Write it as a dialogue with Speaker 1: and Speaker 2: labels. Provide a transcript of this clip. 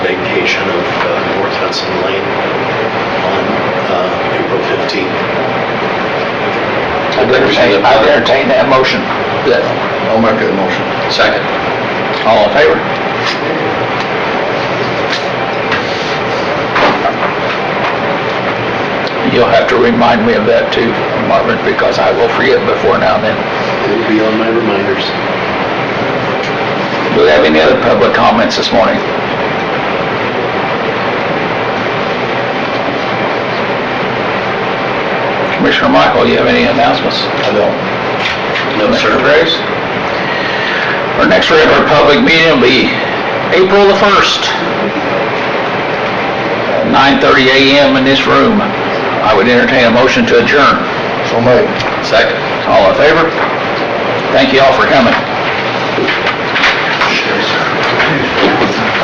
Speaker 1: uh, uh,
Speaker 2: I'd entertain, I'd entertain that motion.
Speaker 3: Yes.
Speaker 1: I'll make that motion.
Speaker 3: Second.
Speaker 2: All in favor? You'll have to remind me of that too, Marvin, because I will forget before now and then.
Speaker 1: It'll be on my reminders.
Speaker 2: Do we have any other public comments this morning? Commissioner Michael, you have any announcements?
Speaker 1: I don't.
Speaker 2: No, sir. Our next regular public meeting will be April the 1st, 9:30 a.m. in this room. I would entertain a motion to adjourn.
Speaker 1: So made.
Speaker 2: Second. All in favor? Thank you all for coming.